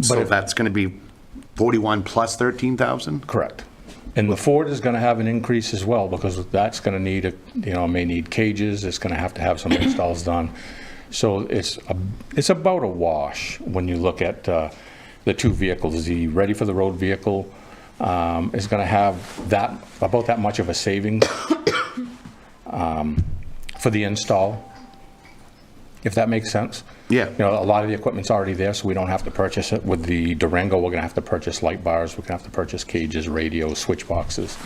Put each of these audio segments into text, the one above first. So if- that's going to be 41 plus 13,000? Correct. And the Ford is going to have an increase as well, because that's going to need, a you know, may need cages, it's going to have to have some installs done. So it's, a- it's about a wash when you look at uh, the two vehicles. The Ready for the Road vehicle um, is going to have that, about that much of a savings um, for the install, if that makes sense. Yeah. You know, a lot of the equipment's already there, so we don't have to purchase it. With the Durango, we're gonna have to purchase light bars, we're gonna have to purchase cages, radios, switch boxes.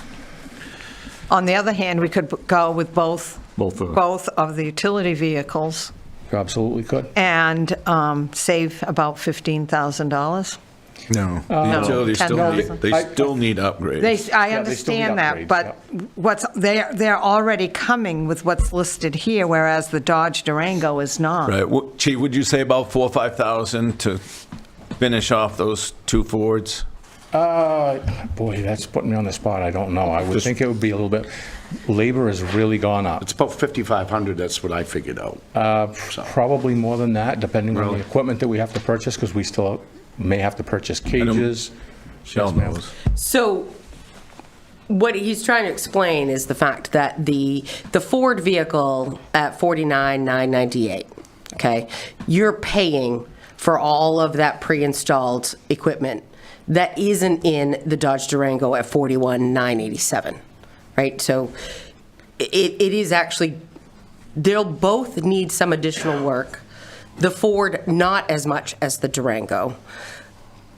On the other hand, we could go with both. Both of- both of the utility vehicles You absolutely could. and um, save about $15,000. No. Uh, The utilities still need, $10,000. they still need upgrades. They, I Yeah, they still need understand that, upgrades, but what's, they're, they're already coming with what's listed here, whereas the Dodge Durango is not. Right. Wha- Chief, would you say about four, or 5,000 to finish off those two Fords? Uh, boy, that's putting me on the spot, I don't know. I would think it would be a little bit, labor has really gone up. It's about 5,500, that's what I figured out. Probably more than that, depending on Really? the equipment that we have to purchase, because we still may have to purchase cages. Shell ma'am. knows. So what he's trying to explain is the fact that the, the Ford vehicle at 49,998, okay? You're paying for all of that pre-installed equipment that isn't in the Dodge Durango at 41,987, right? So it, it is actually, they'll both need some additional work. The Ford, not as much as the Durango.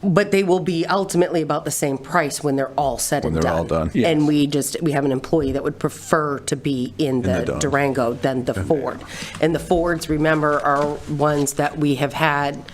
But they will be ultimately about the same price when they're all said and When done. they're all done. Yes. And we just, we have an employee that would prefer to be in the the Dodge. Durango than the Ford. And the Fords, remember, are ones that we have had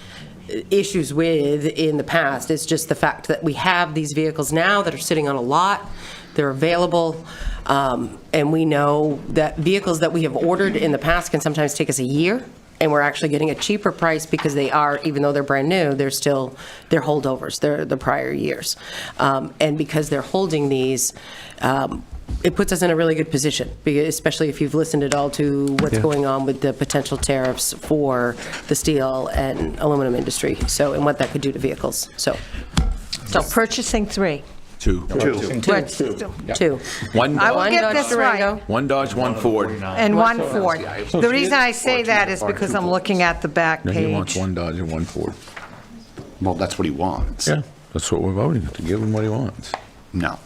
issues with in the past. It's just the fact that we have these vehicles now that are sitting on a lot, they're available, um, and we know that vehicles that we have ordered in the past can sometimes take us a year, and we're actually getting a cheaper price because they are, even though they're brand new, they're still, they're holdovers, they're the prior years. Um, And because they're holding these, um, it puts us in a really good position, be- especially if you've listened at all to what's going on with the potential tariffs for the steel and aluminum industry, so, and what that could do to vehicles, so. So purchasing three. Two. But- Two. One I will Dodge, One get Dodge this right. Durango. one Dodge, one Ford. And one Ford. So The she reason I is- say or that two is or because two I'm looking at the back He wants page. one Dodge and one Ford. Well, that's what he wants. Yeah, that's what we're voting, to give him what he wants. No.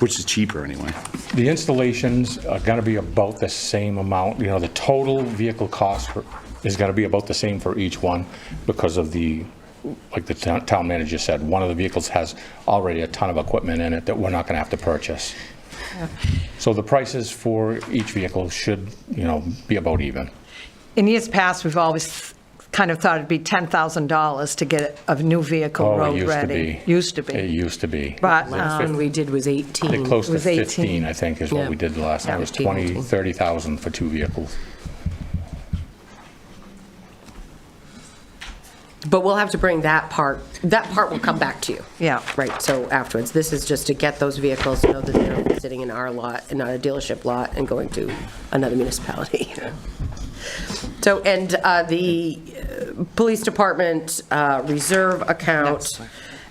Which is cheaper, anyway. The installations are going to be about the same amount, you know, the total vehicle cost for- is going to be about the same for each one because of the, like the town town manager said, one of the vehicles has already a ton of equipment in it that we're not going to have to purchase. So the prices for each vehicle should, you know, be about even. In years past, we've always kind of thought it'd be $10,000 to get a new vehicle Oh, it road used to ready. be- It used to be. But, um, Last one we did was 18. They're close It to was 18. 15, I think, is what Yeah. we did the last time. It was 15, 20, 18. 30,000 for two vehicles. But we'll have to bring that part, that part will come back to you. Yeah. Right, so afterwards, this is just to get those vehicles, know that they're sitting in our lot and not a dealership lot and going to another municipality. So, and uh, the uh, police department uh, reserve account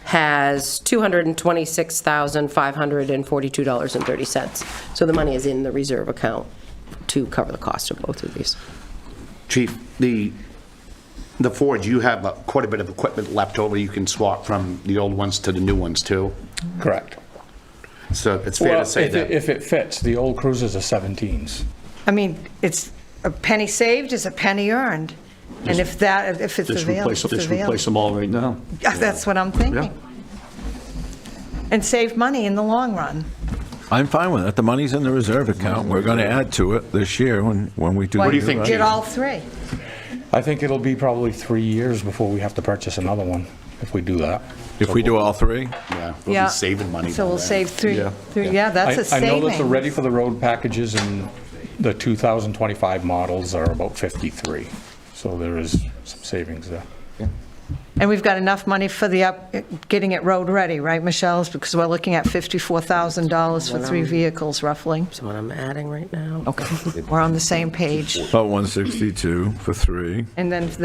has $226,542.30. So the money is in the reserve account to cover the cost of both of these. Chief, the, the Ford, you have uh, quite a bit of equipment left over you can swap from the old ones to the new ones, too. Correct. So it's fair to Well, say if it- that. If it fits, the old cruisers are 17s. I mean, it's, a penny saved is a penny earned. And if that, if it's Just available, replace, it's just replace available. them all right now. Yeah, That's what I'm thinking. And save money in the long run. I'm fine with that. The money's in the reserve account. We're going to add to it this year when, when we do. What the do you think, revised- Chief? Get all three. I think it'll be probably three years before we have to purchase another one, if we do that. If we do all three? Yeah, We'll Yeah. be saving money. So by we'll then. save three, three- yeah, that's a I- I know that the saving. Ready for the Road packages and the 2025 models are about 53, so there is some savings there. And we've got enough money for the up, getting it road-ready, right, Michelle's? Because we're looking at $54,000 for three vehicles roughly. So what I'm adding right now. Okay, we're on the same page. About 162 for three. And then